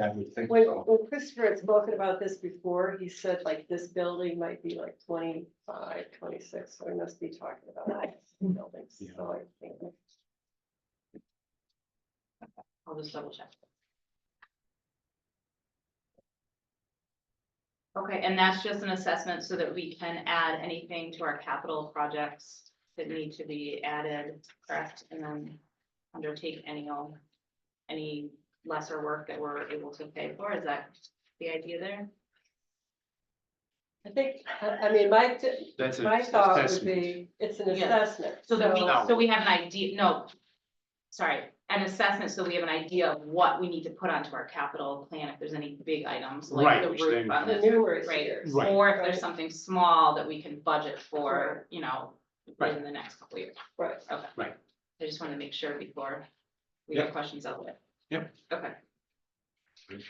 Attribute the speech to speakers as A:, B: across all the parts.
A: I would think
B: When,
A: so.
B: when Christopher had spoken about this before, he said like this building might be like 25, 26. so we must be talking about like buildings, so I think.
C: I'll just double check. Okay, and that's just an assessment so that we can add anything to our capital projects that need to be added, correct? And then undertake any, um, any lesser work that we're able to pay for, is that the idea there?
B: I think, I, I mean, my,
A: That's a
B: my thought would
A: assessment.
B: be, it's an
C: Yeah.
B: assessment,
C: So that we,
B: so,
A: No.
C: so we have an idea, no, sorry, an assessment, so we have an idea of what we need to put onto our capital plan, if there's any big items, like
A: Right,
C: the
A: which
C: roof
A: then-
C: on
B: the
C: this.
B: numerous
C: Right.
B: years.
A: Right.
C: Or if
B: Right.
C: there's something small that we can budget for, you know,
A: Right.
C: in the next couple years,
B: Right,
C: okay.
A: Right.
C: I just wanted to make sure before we get questions out there.
A: Yep.
C: Okay.
A: Great.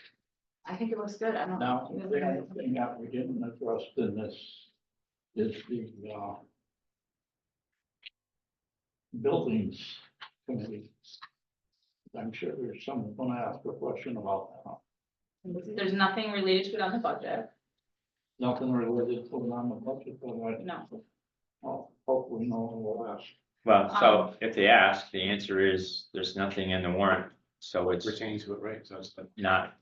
C: I think it looks good, I don't.
D: Now,
C: you guys
D: the
C: have-
D: other thing that we didn't address in this is the, uh, buildings committee. I'm sure there's someone gonna ask a question about that.
C: There's nothing related to it on the budget,
D: Nothing related to it on the budget, but
C: no.
D: I oh, hopefully no one will ask.
E: Well,
C: Um,
E: so if they ask, the answer is there's nothing in the warrant, so it's
A: Pertains to it, right? So it's the.
E: not.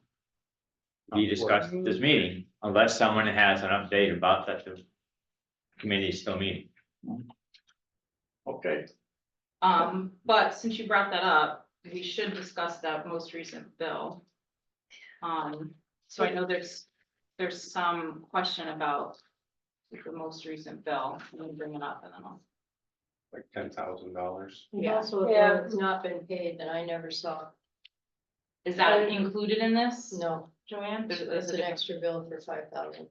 E: Be discussed at this meeting unless someone has an update about that the committee is still meeting.
D: Okay,
C: Um, but since you brought that up, we should discuss that most recent bill. Um, so I know there's, there's some question about the most recent bill, I'm gonna bring it up and then I'll.
A: Like ten thousand dollars.
C: Yeah.
F: Also, if
B: Yeah.
F: it's not been paid, then I never saw,
C: Is that included in this?
F: no,
C: Joanne? There's- there's
F: it's
C: a
F: an
C: different-
F: extra bill for five thousand.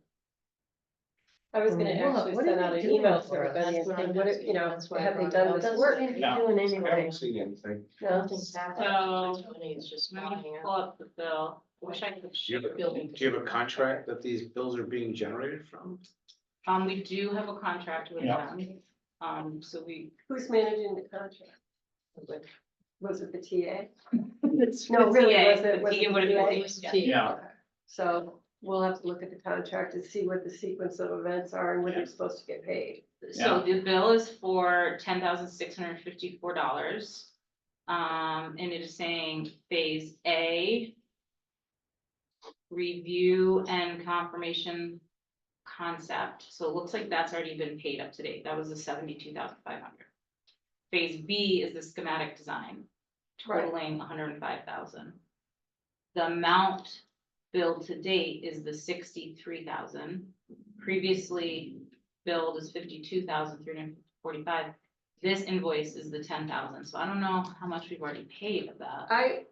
B: I was gonna
F: Well,
B: actually
F: what
B: send
F: are
B: out
F: they
B: an
F: doing
B: email
F: for
B: to everybody
F: it?
B: and
F: That's
B: say,
F: what
B: what,
F: I'm
B: if- you know,
F: asking. That's why I
B: have they
F: brought it
B: done
F: up.
B: this work?
D: Yeah.
F: doing
A: I haven't seen anything.
B: No.
F: Nothing's
C: So-
F: happening. The money is just
C: Let me
F: lying
C: pull up the bill. I Wish I
A: Do
C: could.
A: you have a-
F: Building.
A: do you have a contract that these bills are being generated from?
C: Um, we do have a contract with
D: Yeah.
C: them. Um, so we,
B: Who's managing the contract? Was it the TA?
F: out.
B: No, really,
C: TA,
B: was it,
C: the
B: was
C: TA
B: it
C: would've
B: TA?
C: been-
D: yeah,
B: Okay. So we'll have to look at the contract and see what the sequence of events are and when they're supposed to get paid.
C: so the bill is for ten thousand six hundred fifty-four dollars. Um, and it is saying phase A. Review and confirmation concept, so it looks like that's already been paid up to date, that was the seventy-two thousand five hundred. Phase B is the schematic design
B: Right.
C: totaling hundred and five thousand. The amount billed to date is the sixty-three thousand, previously billed is fifty-two thousand three hundred forty-five. This invoice is the ten thousand, so I don't know how much we've already paid of that.
B: I,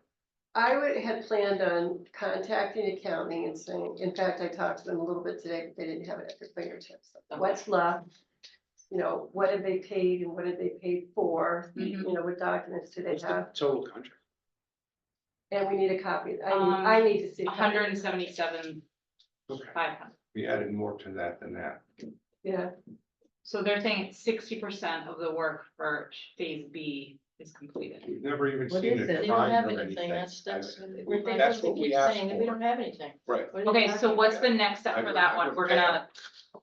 B: I would, had planned on contacting accounting and saying, in fact, I talked to them a little bit today, but they didn't have it at their fingertips. What's left? You know, what have they paid and what have they paid for? You
C: Mhm.
B: know, what documents do they
A: What's the
B: have?
A: total contract?
B: And we need a copy. I,
C: Um,
B: need- I need to see. a copy.
C: hundred and seventy-seven
A: Okay,
C: five hundred.
A: we added more to that than that.
B: Yeah,
C: So they're saying sixty percent of the work for phase B is completed.
A: We've never even
F: What
A: seen it.
F: is it? They don't
A: defined
F: have
A: or
F: anything, that's, that's.
A: We're- that's what we asked
F: saying that We
A: for.
F: don't have anything.
A: Right.
F: What do they
C: Okay,
F: have
C: so
F: to-
C: what's the next step
A: I-
C: for that
A: I
C: one?
A: would
C: We're
A: pay
C: gonna,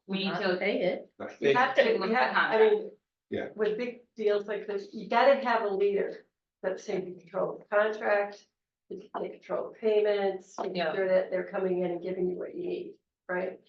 C: we need
F: Not
C: to,
F: Pay it.
A: Like,
B: we
A: they-
B: have to, we have, I mean.
A: Yeah.
B: With big deals like this, you gotta have a leader that's saying you control the contract, you can control payments, making
C: Yeah.
B: sure that they're coming in and giving you what you need, right?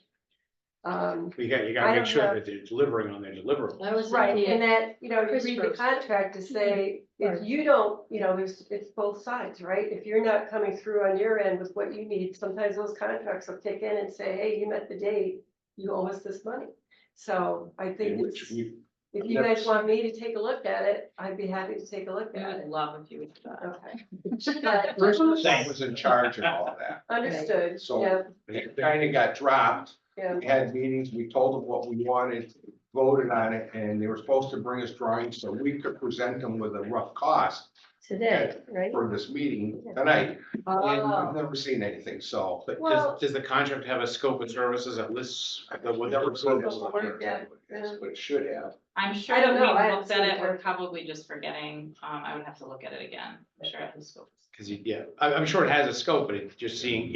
B: Um,
A: We got, you
B: I
A: gotta
B: don't
A: make sure
B: know.
A: that they're delivering on their deliverable.
F: That was the
B: right, and
F: idea.
B: that, you know, you read the
F: Christopher's.
B: contract to say, if
F: Right.
B: you don't, you know, there's, it's both sides, right? If you're not coming through on your end with what you need, sometimes those contracts will kick in and say, hey, you met the date, you owe us this money. So I think
A: in
B: it's.
A: which we-
B: If you
A: Yep.
B: guys want me to take a look at it, I'd be happy to take a look
C: we
B: at
C: would
B: it.
C: love if you would do that.
B: Okay,
F: But-
D: Same.
A: Was in charge of all of that.
B: understood,
A: So-
B: yeah,
A: It kinda got dropped.
B: yeah,
A: We had meetings, we told them what we wanted, voted on it, and they were supposed to bring us drawings so we could present them with a rough cost
F: Today, right?
A: for this meeting tonight. And I've
B: Oh,
A: never seen anything, so.
G: But
B: Well-
G: does, does the contract have a scope of services that lists the- whatever service?
B: Scope of work, yeah.
A: That's what it should have.
C: I'm sure
B: I
C: that
B: don't
C: we
B: know, I haven't
C: looked at
B: seen
C: it, we're
B: it.
C: probably just forgetting, um, I would have to look at it again, I'm sure I have the scope.
A: Cause you- yeah, I'm, I'm sure it has a scope, but it- you're seeing